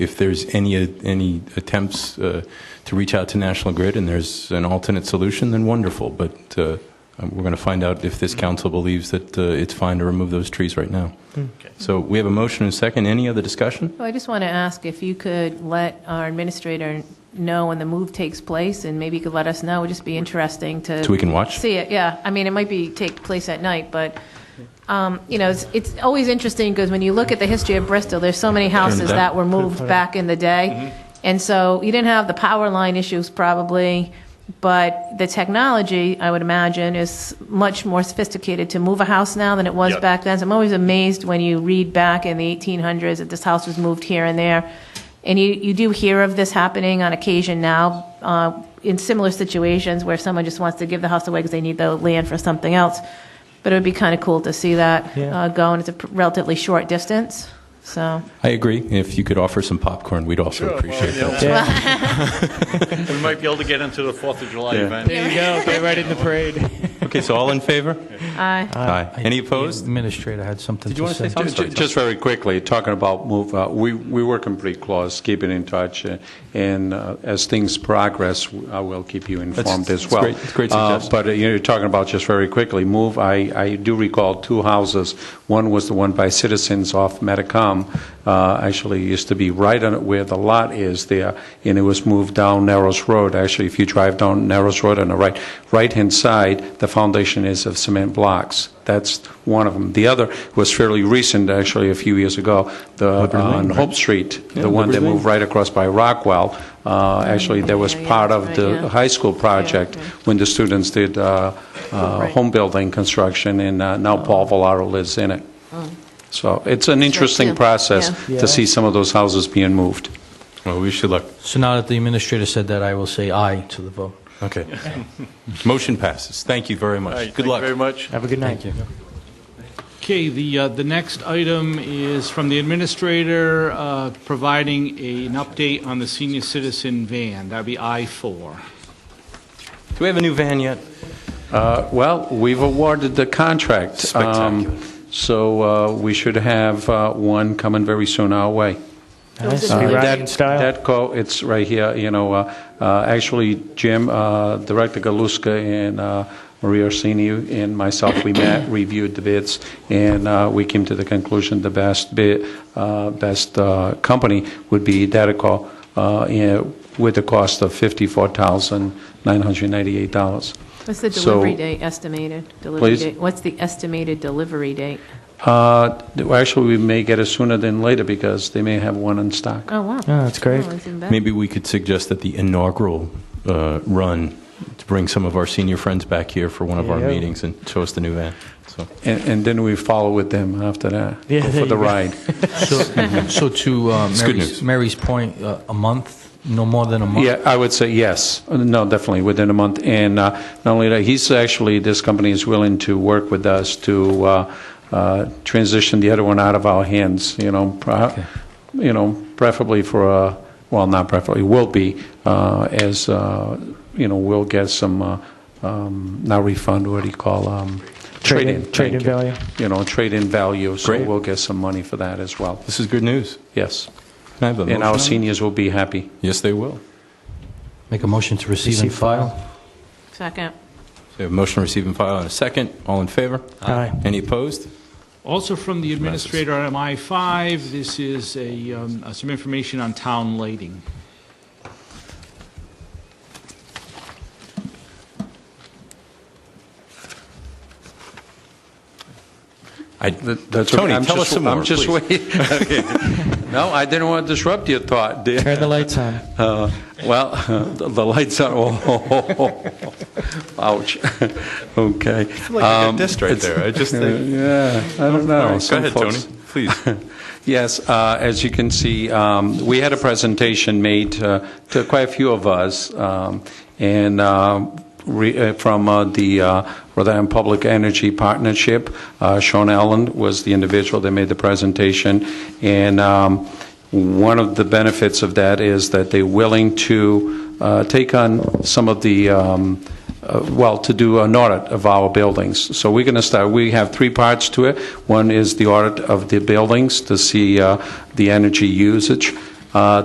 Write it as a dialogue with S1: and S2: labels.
S1: if there's any, any attempts uh, to reach out to National Grid and there's an alternate solution, then wonderful. But uh, we're going to find out if this council believes that uh, it's fine to remove those trees right now.
S2: Hmm.
S1: So we have a motion and a second. Any other discussion?
S3: Well, I just want to ask if you could let our administrator know when the move takes place, and maybe you could let us know. It'd just be interesting to.
S1: So we can watch?
S3: See it, yeah. I mean, it might be, take place at night, but, um, you know, it's, it's always interesting, because when you look at the history of Bristol, there's so many houses
S1: down.
S3: that were moved back in the day. And so you didn't have the power line issues probably, but the technology, I would imagine, is much more sophisticated to move a house now than it was
S4: Yep.
S3: back then. So I'm always amazed when you read back in the 1800s that this house was moved here and there. And you, you do hear of this happening on occasion now uh, in similar situations where someone just wants to give the house away because they need the land for something else. But it would be kind of cool to see that uh, go, and it's a pr- relatively short distance. So,
S1: I agree. If you could offer some popcorn, we'd also appreciate that.
S2: Yeah,
S4: We might be able to get into the Fourth of July
S1: Yeah.
S4: event.
S2: there you go. Get right in the parade.
S1: Okay, so all in favor?
S3: I
S1: Aye. Any opposed?
S5: Administrator had something
S1: you
S5: to
S1: wanna say
S5: say.
S1: something? I'm sorry.
S6: Just very quickly, talking about move, uh, we, we work in pretty close, keeping in touch, uh, and uh, as things progress, I will keep you informed as
S1: that's
S6: well.
S1: great. It's a great
S6: Uh,
S1: suggestion.
S6: But uh, you're talking about, just very quickly, move, I, I do recall two houses. One was the one by Citizens off Metacom, uh, actually used to be right on it where the lot is there, and it was moved down Narrows Road. Actually, if you drive down Narrows Road on the right, right-hand side, the foundation is of cement blocks. That's one of them. The other was fairly recent, actually, a few years ago, the, on Hope Street, the one that moved right across by Rockwell. Uh, Actually, that was
S3: Yeah, yeah,
S6: part
S3: that's
S6: of
S3: right,
S6: the
S3: yeah.
S6: high school project
S3: okay.
S6: when the students did uh, uh,
S3: Right. Oh.
S6: home building construction, and uh, now Paul Valaro lives in it. So it's an interesting
S3: yeah.
S6: process
S2: Yeah.
S6: to see some of those houses being moved.
S1: Well, we should look.
S5: So now that the administrator said that, I will say aye to the vote.
S1: Okay.
S6: Uh,
S1: Motion passes. Thank you very
S4: All right,
S1: much.
S4: thank
S1: Good
S4: you
S1: luck.
S4: very much.
S2: Have a good night.
S7: Okay, the, uh, the next item is from the administrator, uh, providing a- an update on the senior citizen van. That'd be I-4.
S1: Do we have a new van yet?
S6: Uh, Well, we've awarded the contract. Um,
S1: Spectacular.
S6: So uh, we should have uh, one coming very soon our way.
S2: Nice.
S3: Uh,
S2: Be
S6: Uh,
S2: riding in
S6: that-
S2: style.
S6: That co, it's right here, you know, uh, uh, actually, Jim, uh, Director Galuska and uh, Maria Orsini and myself, we met, reviewed the bids, and uh, we came to the conclusion the best bid, uh, best uh, company would be Datacom, uh, in- with the cost of $54,998.
S3: What's the
S6: So-
S3: delivery date estimated? Delivery
S6: Please?
S3: date? What's the estimated delivery date?
S6: Uh, Actually, we may get it sooner than later, because they may have one in stock.
S3: Oh, wow.
S2: Oh, that's great.
S3: Oh, it's even better.
S1: Maybe we could suggest that the inaugural uh, run to bring some of our senior friends back here for one of our
S2: Yeah.
S1: meetings and show us the new van. So
S6: And and then we follow with them after that,
S2: Yeah,
S6: go
S2: there
S6: for
S2: you go.
S6: the ride.
S5: So so to uh,
S1: good news.
S5: Mary's- Mary's point, uh, a month, no more than a month?
S6: Yeah, I would say yes. No, definitely, within a month. And uh, not only that, he's actually, this company is willing to work with us to uh, uh, transition the other one out of our hands, you know, pro- you know, preferably for, a well, not preferably, will be, uh, as, uh, you know, we'll get some, uh, um, not refund, what do you call, um,
S2: Trade-in-
S6: trade-in.
S2: trade-in
S6: thank you.
S2: value.
S6: You know, trade-in value, so
S1: Great.
S6: we'll get some money for that as well,
S1: this is good news.
S6: yes.
S1: Can I have a
S6: And
S1: motion on
S6: our
S1: it?
S6: seniors will be happy.
S1: Yes, they will.
S5: Make a motion to receive and
S2: Receive, file.
S5: file?
S3: Second.
S1: So we have a motion to receive and file and a second. All in favor?
S2: Aye.
S1: Any opposed?
S7: Also from the administrator on I-5, this is a, um, uh, some information on town lighting.
S1: I,
S6: That's okay.
S1: Tony,
S6: I'm
S1: tell
S6: just-
S1: us some more.
S6: I'm just
S1: please.
S6: waiting. Okay. No, I didn't want to disrupt your thought. dear.
S2: Turn the lights on.
S6: Uh, Well, the the lights are, oh, ouch. Okay.
S1: like I got dissed right there. I just think-
S6: Yeah, I
S1: All
S6: don't know.
S1: right, go
S6: Some
S1: Um, ahead,
S6: folks-
S1: Tony. Please.
S6: Yes, uh, as you can see, um, we had a presentation made uh, to quite a few of us, um, and uh, re- uh, from uh, the uh, Rhode Island Public Energy Partnership, uh, Sean Allen was the individual that made the presentation, and um, one of the benefits of that is that they're willing to uh, take on some of the um, uh, well, to do an audit of our buildings. So we're going to start, we have three parts to it. One is the audit of the buildings to see uh, the energy usage. uh,